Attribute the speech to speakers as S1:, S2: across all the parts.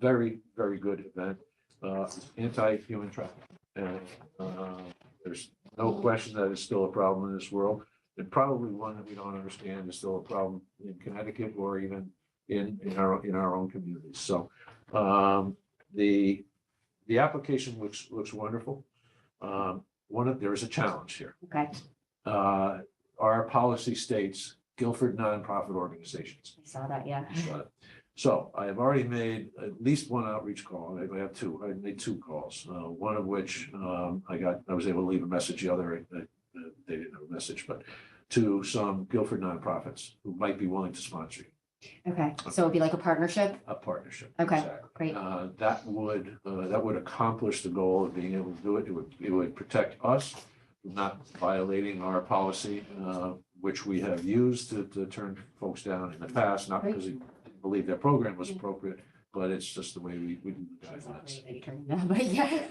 S1: very, very good event, uh, anti-human trafficking. And, uh, there's no question that it's still a problem in this world, and probably one that we don't understand is still a problem in Connecticut or even in, in our, in our own communities. So, um, the, the application looks, looks wonderful. Um, one of, there is a challenge here.
S2: Okay, I
S1: Uh, our policy states Guilford nonprofit organizations.
S2: saw that, yeah.
S1: Got it. So I have already made at least one outreach call. I I have two, I made two calls, uh, one of which, um, I got, I was able to leave a message, the other, uh, uh, they didn't have a message, but to some Guilford nonprofits who might be willing to sponsor you,
S2: Okay, so it'd be like a partnership?
S1: a partnership.
S2: Okay,
S1: Exactly.
S2: Great,
S1: Uh, that would, uh, that would accomplish the goal of being able to do it. It would, it would protect us from not violating our policy, uh, which we have used to, to turn folks down in the past, not because we didn't believe their program was appropriate, but it's just the way we, we do the
S2: It's not
S1: guidelines.
S2: really returning that, but yeah.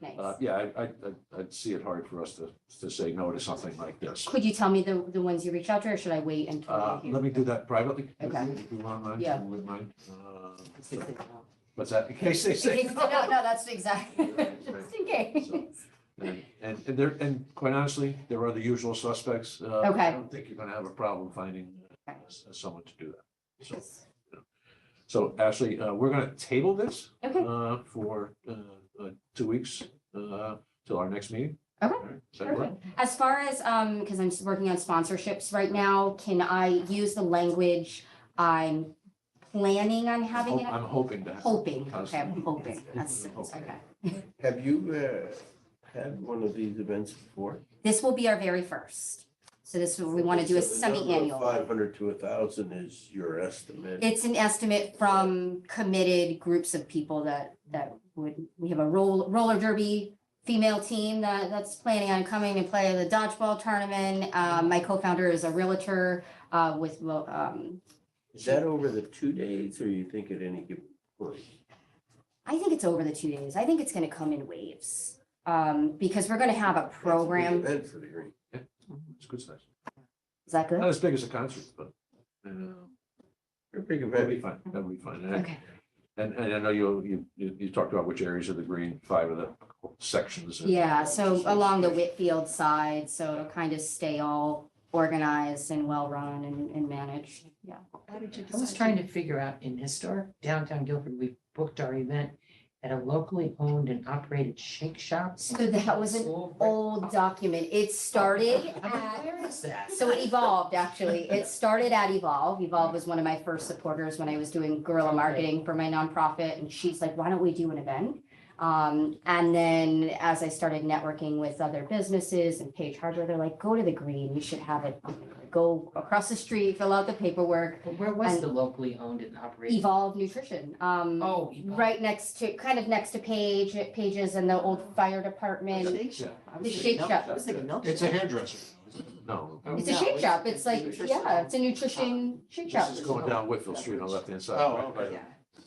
S1: Uh,
S2: Nice.
S1: yeah, I, I, I'd- I'd see it hard for us to, to say no to something like this.
S2: Could you tell me the, the ones you reached out to, or should I wait until?
S1: Uh,
S2: I hear
S1: let me do that privately. if
S2: Okay.
S1: you- If you want mine,
S2: Yeah.
S1: would mind. Uh,
S2: It's a good call.
S1: What's that? In case they
S2: In
S1: say
S2: case-
S1: no.
S2: No, no, that's exactly,
S1: Right,
S2: just in case.
S1: And, and and there, and quite honestly, there are the usual suspects. Uh, I
S2: Okay.
S1: don't think you're gonna have a problem finding uh,
S2: Okay.
S1: s- someone to do that. So, so Ashley, uh, we're gonna table this,
S2: Okay,
S1: uh, for, uh, uh, two weeks, uh, till our next meeting.
S2: Okay.
S1: All right, does that work?
S2: perfect. As far as, um, because I'm just working on sponsorships right now, can I use the language I'm planning on
S1: I'm
S2: having
S1: hop-
S2: it?
S1: Oh, I'm hoping to. have-
S2: Hoping, okay, I'm hoping, that's, okay.
S3: Have you uh, had one of these events before?
S2: This will be our very first. So this, we want to do a
S3: Five
S2: semi-annual.
S3: hundred to a thousand is your estimate.
S2: It's an estimate from committed groups of people that, that would, we have a roll, roller derby female team that, that's planning on coming to play the dodgeball tournament. Um, my co-founder is a realtor, uh, with, well, um,
S3: Is that over the two days or you think at any given point?
S2: I think it's over the two days. I think it's going to come in waves. Um, because we're going to have a
S3: That's a big
S2: program.
S3: Event for the green.
S1: It's good size.
S2: Is that
S1: Not
S2: good?
S1: as big as a concert, but, uh,
S3: A big
S1: that'll be
S3: event.
S1: fine. That'll be fine. And I-
S2: Okay.
S1: And, and I know you, you, you you talked about which areas of the green, five of the sections. and-
S2: Yeah, so along the Whitfield side, so it'll kind of stay all organized and well-run and, and managed, yeah.
S4: I was trying to figure out in historic downtown Guilford, we booked our event at a locally owned and operated shake shop.
S2: So that was an old document, it started
S4: I'm like,
S2: at,
S4: Where is that?
S2: so it evolved, actually, it started at Evolve. Evolve was one of my first supporters when I was doing guerrilla marketing for my nonprofit, and she's like, why don't we do an event? Um, and then as I started networking with other businesses and Page Hardware, they're like, go to the green, you should have it, go across the street, fill out the paperwork,
S4: But Where was
S2: and-
S4: the locally owned and operated?
S2: Evolve Nutrition. Um,
S4: Oh. Evolve.
S2: right next to, kind of next to Page, Pages and the old fire department.
S4: Shake
S1: Shop.
S4: I was
S2: The
S4: thinking
S2: Shake
S4: milk-
S2: Shop.
S4: I was thinking milk.
S5: It's a hairdresser.
S1: No,
S4: Oh,
S2: It's a
S4: no,
S2: shake shop. It's like,
S4: nutrition.
S2: yeah, it's a nutrition shake shop.
S1: this is going down Whitfield Street on the left-hand side.
S5: Oh,
S1: right by the-
S4: Yeah.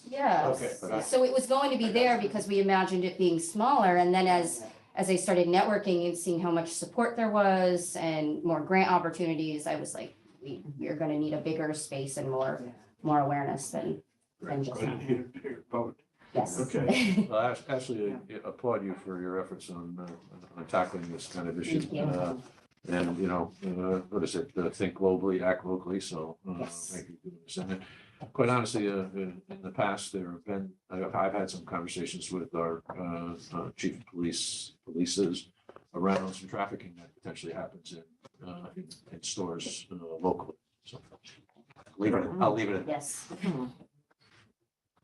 S2: Yeah.
S3: Okay, but I-
S2: So it was going to be there because we imagined it being smaller. And then as, as I started networking and seeing how much support there was and more grant opportunities, I was like, we, we're gonna need a bigger space and more, more awareness than, than just,
S5: Right here, here, boat.
S2: yes.
S3: Okay.
S1: Well, Ash- Ashley, Uh, I applaud you for your efforts on, uh, on tackling this kind of issue.
S2: Thank you.
S1: Uh, And, you know, uh, what is it, uh, think globally, act locally, so. uh,
S2: Yes.
S1: thank you for this. And uh, Quite honestly, uh, in in the past, there have been, I've I've had some conversations with our uh, uh, chief of police, polices around some trafficking that potentially happens in, uh, in- in stores uh, locally, so. Leave it, I'll leave it at that.
S2: Yes.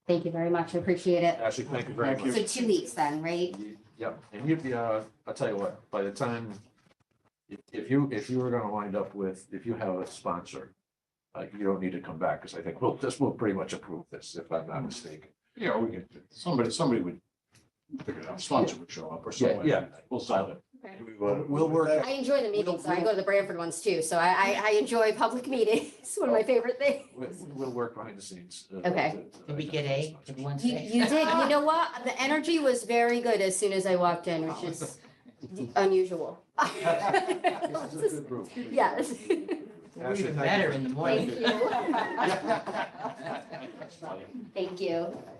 S2: Thank you very much. I appreciate it.
S1: Ashley, thank you very
S5: Thank
S1: much.
S5: you.
S2: So two weeks then, right?
S1: Yep, and you'd be, uh, I'll tell you what, by the time, if, if you, if you were gonna wind up with, if you have a sponsor, uh, you don't need to come back, because I think we'll, this will pretty much approve this, if I'm not mistaken.
S5: Yeah, we could, somebody, somebody would figure it out, sponsor would show up or
S1: Yeah,
S5: something.
S1: yeah.
S5: We'll solve it.
S3: Do we wanna move
S1: We'll work-
S3: with that?
S2: I enjoy the meetings. I go to the Branford ones too, so I, I, I enjoy public meetings. It's one of my favorite things.
S1: We'll, we'll work behind the scenes. uh,
S2: Okay.
S1: to- to
S4: Did we get A
S1: identify
S4: in
S1: sponsors.
S4: one
S2: You,
S4: day?
S2: you did, you know what? The energy was very good as soon as I walked in, which is unusual.
S1: This is a good group.
S2: Yes.
S4: We're
S1: Ashley,
S4: even
S1: thank
S4: better
S1: you.
S4: in the morning.
S2: Thank you. Thank you.